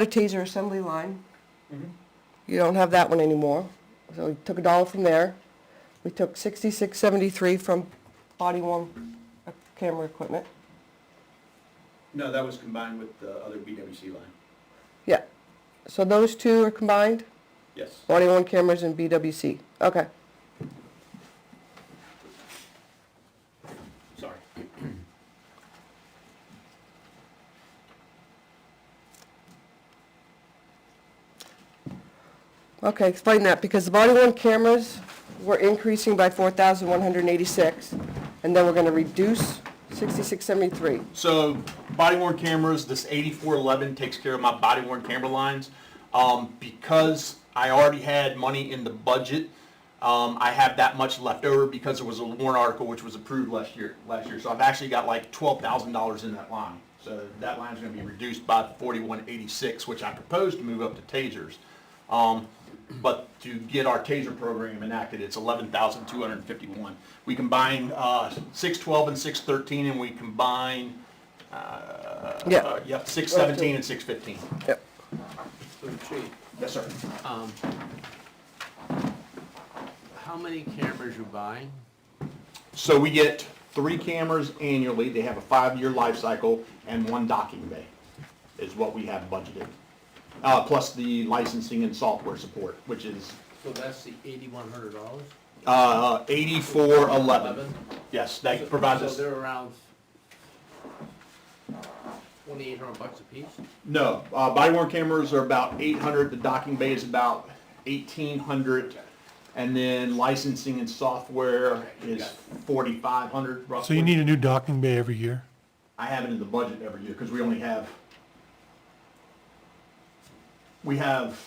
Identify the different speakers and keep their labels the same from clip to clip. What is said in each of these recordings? Speaker 1: a taser assembly line.
Speaker 2: Mhm.
Speaker 1: You don't have that one anymore. So we took a dollar from there. We took sixty-six seventy-three from body worn uh, camera equipment.
Speaker 2: No, that was combined with the other BWC line.
Speaker 1: Yeah. So those two are combined,
Speaker 2: Yes.
Speaker 1: body worn cameras and BWC. Okay.
Speaker 2: Sorry.
Speaker 1: Okay, explain that, because the body worn cameras were increasing by four thousand one hundred and eighty-six, and then we're gonna reduce sixty-six seventy-three.
Speaker 2: So body worn cameras, this 8411 takes care of my body worn camera lines. Um, because I already had money in the budget, um, I have that much left over because there was a warrant article which was approved last year, last year. So I've actually got like $12,000 in that line. So that line's gonna be reduced by 4186, which I proposed to move up to tasers. Um, but to get our TASER program enacted, it's eleven thousand two hundred and fifty-one. We combine, uh, six twelve and six thirteen, and we combine, uh,
Speaker 1: Yeah.
Speaker 2: uh, Yep, six seventeen and six fifteen.
Speaker 1: Yep.
Speaker 3: So Chief,
Speaker 2: Yes, sir.
Speaker 3: um, how many cameras you buying?
Speaker 2: So we get three cameras annually, they have a five-year life cycle, and one docking bay is what we have budgeted. Uh, plus the licensing and software support, which is,
Speaker 3: So that's the eighty-one hundred dollars?
Speaker 2: uh, eighty-four eleven. Yes, that provides us.
Speaker 3: So they're around twenty-eight hundred bucks a piece?
Speaker 2: No, uh, body worn cameras are about eight hundred, the docking bay is about eighteen hundred, and then licensing and software is forty-five hundred roughly.
Speaker 4: So you need a new docking bay every year?
Speaker 2: I have it in the budget every year, because we only have, we have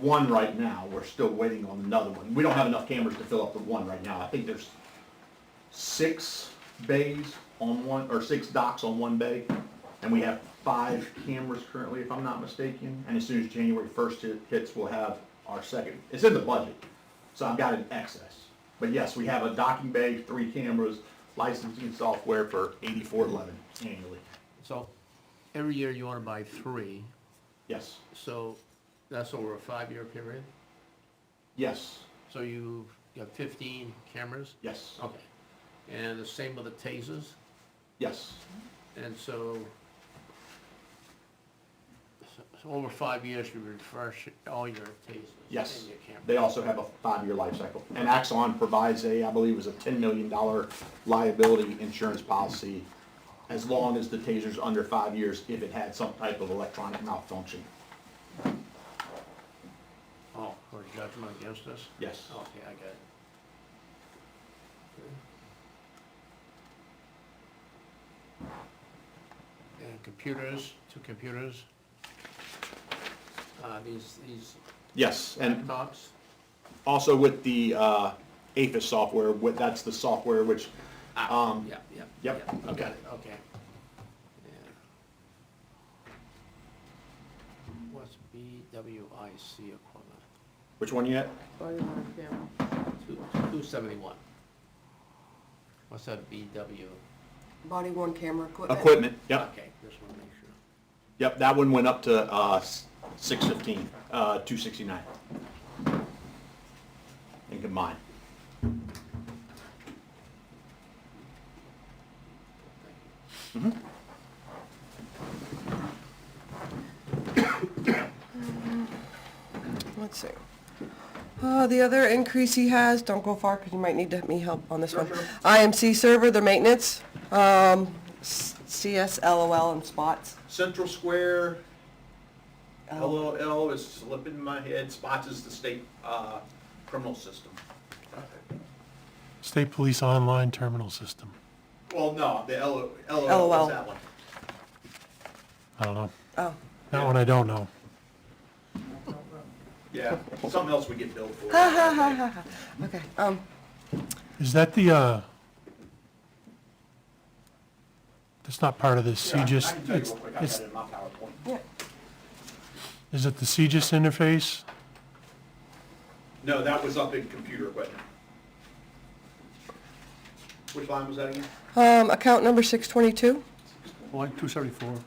Speaker 2: one right now, we're still waiting on another one. We don't have enough cameras to fill up the one right now, I think there's six bays on one, or six docks on one bay, and we have five cameras currently, if I'm not mistaken, and as soon as January first hits, we'll have our second, it's in the budget, so I've got an excess. But yes, we have a docking bay, three cameras, licensing software for eighty-four eleven annually,
Speaker 3: So every year you wanna buy three,
Speaker 2: yes,
Speaker 3: so that's over a five-year period?
Speaker 2: yes,
Speaker 3: So you got fifteen cameras?
Speaker 2: yes,
Speaker 3: Okay. And the same with the tasers?
Speaker 2: yes,
Speaker 3: And so, so- so over five years, you refresh all your tasers?
Speaker 2: yes.
Speaker 3: And your cameras.
Speaker 2: They also have a five-year life cycle, and Axon provides a, I believe, it was a ten million dollar liability insurance policy as long as the taser's under five years if it had some type of electronic malfunction,
Speaker 3: Oh, for judgment against us?
Speaker 2: yes.
Speaker 3: Okay, I got it. And computers, two computers. Uh, these, these
Speaker 2: Yes, and
Speaker 3: laptops,
Speaker 2: also with the uh, APHIS software, with, that's the software which, um,
Speaker 3: yeah, yeah.
Speaker 2: yep,
Speaker 3: yeah, I
Speaker 2: okay.
Speaker 3: Got it, okay. Yeah. What's BWIC equivalent?
Speaker 2: which one you had?
Speaker 3: Two, two seventy-one. What's that BW?
Speaker 1: Body worn camera equipment.
Speaker 2: Equipment, yep,
Speaker 3: Okay, just wanna make sure.
Speaker 2: yep, that one went up to uh, six fifteen, uh, two sixty-nine. And combined,
Speaker 3: Thank you.
Speaker 1: Let's see. Uh, the other increase he has, don't go far because you might need to me help on this one. IMC server, the maintenance, um, s- CSLOL and spots.
Speaker 2: Central Square,
Speaker 1: Oh.
Speaker 2: LOL is slipping my head, spots is the state uh, criminal system.
Speaker 4: State Police Online Terminal System.
Speaker 2: Well, no, the LOL,
Speaker 1: LOL.
Speaker 2: is that one.
Speaker 4: I don't know.
Speaker 1: Oh,
Speaker 4: That one I don't know.
Speaker 2: Yeah, something else we get billed for.
Speaker 1: okay. Um,
Speaker 4: Is that the, uh, that's not part of the
Speaker 2: Yeah, I- I
Speaker 4: CGIS,
Speaker 2: can tell you
Speaker 4: it's,
Speaker 2: real quick, I got
Speaker 4: it's,
Speaker 2: it in my PowerPoint.
Speaker 1: yeah.
Speaker 4: is it the CGIS interface?
Speaker 2: No, that was up in computer equipment. Which line was that again?
Speaker 1: Um, account number six twenty-two,
Speaker 5: Line 274,